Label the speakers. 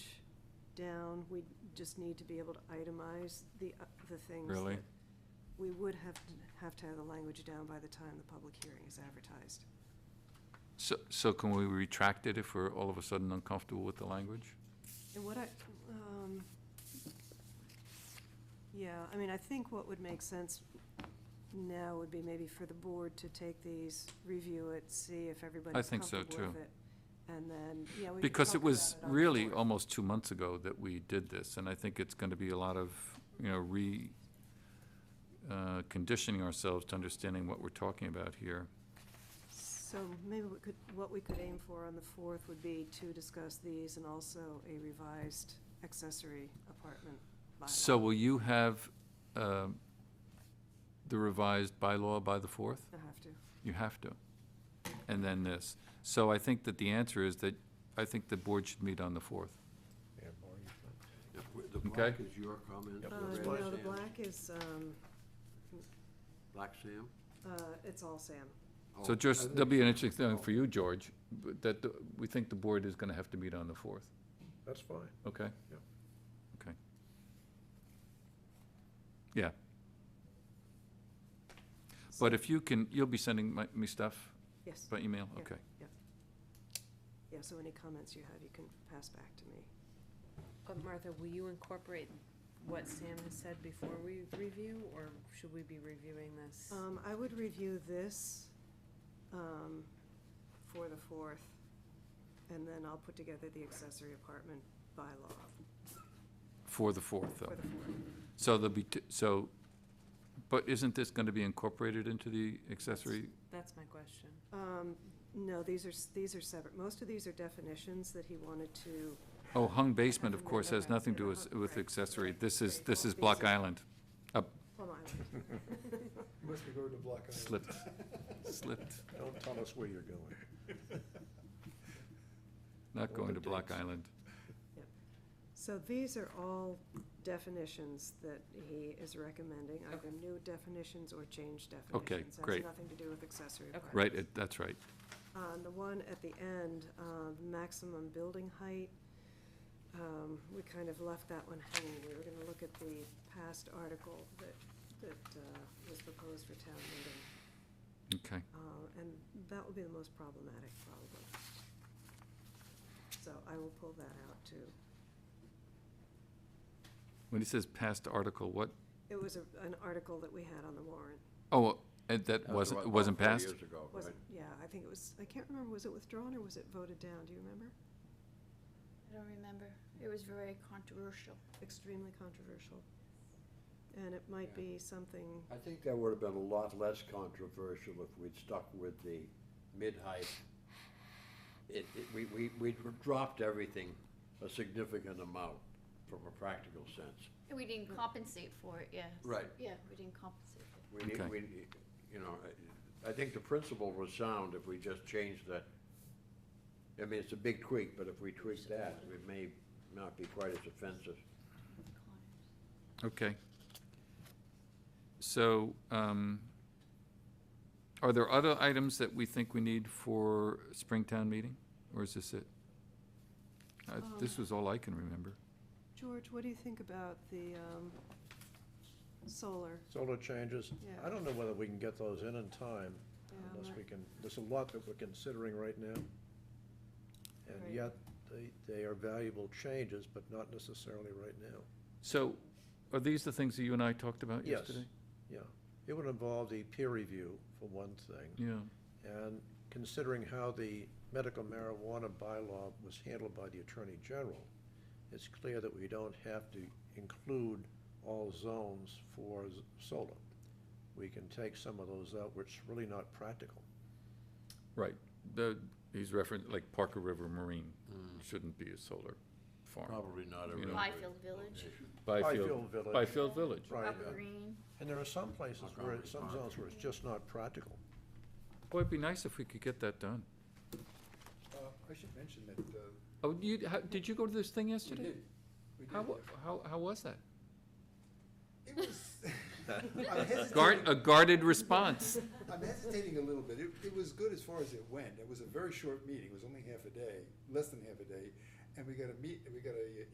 Speaker 1: down, we just need to be able to itemize the, uh, the things.
Speaker 2: Really?
Speaker 1: that- We would have, to have to have the language down by the time the public hearing is advertised.
Speaker 2: So, so can we retract it if we're all of a sudden uncomfortable with the language?
Speaker 1: And what I, um, yeah, I mean, I think what would make sense now would be maybe for the board to take these, review it, see if everybody's
Speaker 2: think so,
Speaker 1: comfortable with it.
Speaker 2: too.
Speaker 1: And then, yeah, we could
Speaker 2: Because
Speaker 1: talk
Speaker 2: it
Speaker 1: about
Speaker 2: was
Speaker 1: on the
Speaker 2: really
Speaker 1: board.
Speaker 2: almost two months ago that we did this, and I think it's gonna be a lot of, you know, re, uh, conditioning ourselves to understanding what we're talking about here.
Speaker 1: So maybe we could, what we could aim for on the fourth would be to discuss these and also a revised accessory apartment bylaw.
Speaker 2: So will you have, um, the revised bylaw by the fourth?
Speaker 1: I have to.
Speaker 2: You have to. And then this. So I think that the answer is that, I think the board should meet on the fourth.
Speaker 3: Yeah, boring as fuck.
Speaker 4: If we- The black
Speaker 2: Okay.
Speaker 4: is your comment?
Speaker 3: Yep.
Speaker 4: the
Speaker 1: Uh,
Speaker 4: red
Speaker 1: no, the
Speaker 4: Sam's.
Speaker 1: black is, um,
Speaker 4: Black Sam?
Speaker 1: uh, it's all Sam.
Speaker 2: So
Speaker 4: Oh, I
Speaker 2: just,
Speaker 4: think
Speaker 2: that'll be an
Speaker 4: so.
Speaker 2: interesting thing
Speaker 4: Oh,
Speaker 2: for you, George, but that, the- we think the board is gonna have to meet on the fourth,
Speaker 3: That's fine.
Speaker 2: okay?
Speaker 3: Yep.
Speaker 2: Okay. Yeah. But if you can, you'll be sending my, me stuff
Speaker 1: Yes,
Speaker 2: by email,
Speaker 1: Yeah.
Speaker 2: okay?
Speaker 1: yeah, so any comments you have, you can pass back to me.
Speaker 5: But Martha, will you incorporate what Sam has said before we review, or should we be reviewing this?
Speaker 1: Um, I would review this, um, for the fourth, and then I'll put together the accessory apartment bylaw
Speaker 2: For the fourth, though.
Speaker 1: for the fourth.
Speaker 2: So there'll be, t- so, but isn't this gonna be incorporated into the accessory?
Speaker 5: That's my question.
Speaker 1: Um, no, these are, s- these are separate. Most of these are definitions that he wanted to,
Speaker 2: Oh, hung basement, of course, has
Speaker 1: Okay.
Speaker 2: nothing to do with- with
Speaker 1: Right.
Speaker 2: accessory. This is,
Speaker 1: Right.
Speaker 2: this is Block Island.
Speaker 1: Plum Island.
Speaker 6: Must be going to Black Island.
Speaker 2: Slipped, slipped.
Speaker 3: Don't tell us where you're going.
Speaker 2: Not
Speaker 3: All
Speaker 2: going
Speaker 3: the
Speaker 2: to Block
Speaker 3: dates.
Speaker 2: Island.
Speaker 1: So these are all definitions that he is recommending, either new definitions or changed definitions.
Speaker 2: great.
Speaker 1: Has nothing to do with accessory
Speaker 5: Okay.
Speaker 1: apartment.
Speaker 2: Right, it- that's right.
Speaker 1: On the one at the end, uh, maximum building height, um, we kind of left that one hanging. We were gonna look at the past article that, that uh, was proposed for town meeting.
Speaker 2: Okay.
Speaker 1: Uh, And that will be the most problematic, probably. So I will pull that out, too.
Speaker 2: When he says past article, what,
Speaker 1: It was a- an article that we had on the warrant.
Speaker 2: oh, and that
Speaker 4: was
Speaker 2: wasn't,
Speaker 4: about
Speaker 2: it wasn't
Speaker 4: four
Speaker 2: passed?
Speaker 4: years ago,
Speaker 1: Was
Speaker 4: right?
Speaker 1: it, yeah, I think it was, I can't remember, was it withdrawn or was it voted down? Do you remember?
Speaker 7: I don't remember. It was very controversial.
Speaker 1: Extremely controversial. And it might be something,
Speaker 4: I think that would have been a lot less controversial if we'd stuck with the mid-height. It, it, we, we, we dropped everything a significant amount from a practical sense.
Speaker 7: And we didn't compensate for it, yeah.
Speaker 4: Right.
Speaker 7: Yeah, we didn't compensate for it.
Speaker 4: We need,
Speaker 2: Okay.
Speaker 4: we, you know, I- I think the principle was sound if we just changed the, I mean, it's a big tweak, but if we tweak that, it may not be quite as offensive.
Speaker 2: Okay. So, um, are there other items that we think we need for Springtown meeting, or is this it? Uh, This
Speaker 3: Um.
Speaker 2: was all I can remember.
Speaker 1: George, what do you think about the um, solar?
Speaker 3: Solar changes,
Speaker 1: Yeah.
Speaker 3: I don't know whether we can get those in in time
Speaker 1: Yeah, I'm
Speaker 3: unless
Speaker 1: not-
Speaker 3: we can, there's a lot that we're considering right now.
Speaker 1: Right.
Speaker 3: And yet, they, they are valuable changes, but not necessarily right now.
Speaker 2: So, are these the things that you and I talked about
Speaker 3: Yes.
Speaker 2: yesterday?
Speaker 3: Yeah, it would involve the peer review for one thing,
Speaker 2: Yeah.
Speaker 3: and considering how the medical marijuana bylaw was handled by the Attorney General, it's clear that we don't have to include all zones for s- solar. We can take some of those out, which is really not practical.
Speaker 2: Right, the, he's referenced, like Parker River Marine shouldn't be a solar farm.
Speaker 4: Probably not
Speaker 2: You know.
Speaker 4: every.
Speaker 7: Byfield Village,
Speaker 2: Byfield,
Speaker 3: Byfield Village.
Speaker 2: Byfield Village,
Speaker 3: Right,
Speaker 7: Upper Green.
Speaker 3: and there are some places where, it- some zones where it's just not practical.
Speaker 2: boy, it'd be nice if we could get that done.
Speaker 6: Uh, I should mention that, uh,
Speaker 2: Oh, you, how, did you go to this thing yesterday?
Speaker 6: we did.
Speaker 2: How, wa- how, how was that?
Speaker 6: It was, I'm
Speaker 2: Guard,
Speaker 6: hesitating,
Speaker 2: a guarded response.
Speaker 6: I'm hesitating a little bit. It, it was good as far as it went. It was a very short meeting. It was only half a day, less than half a day. And we got a meet, we got a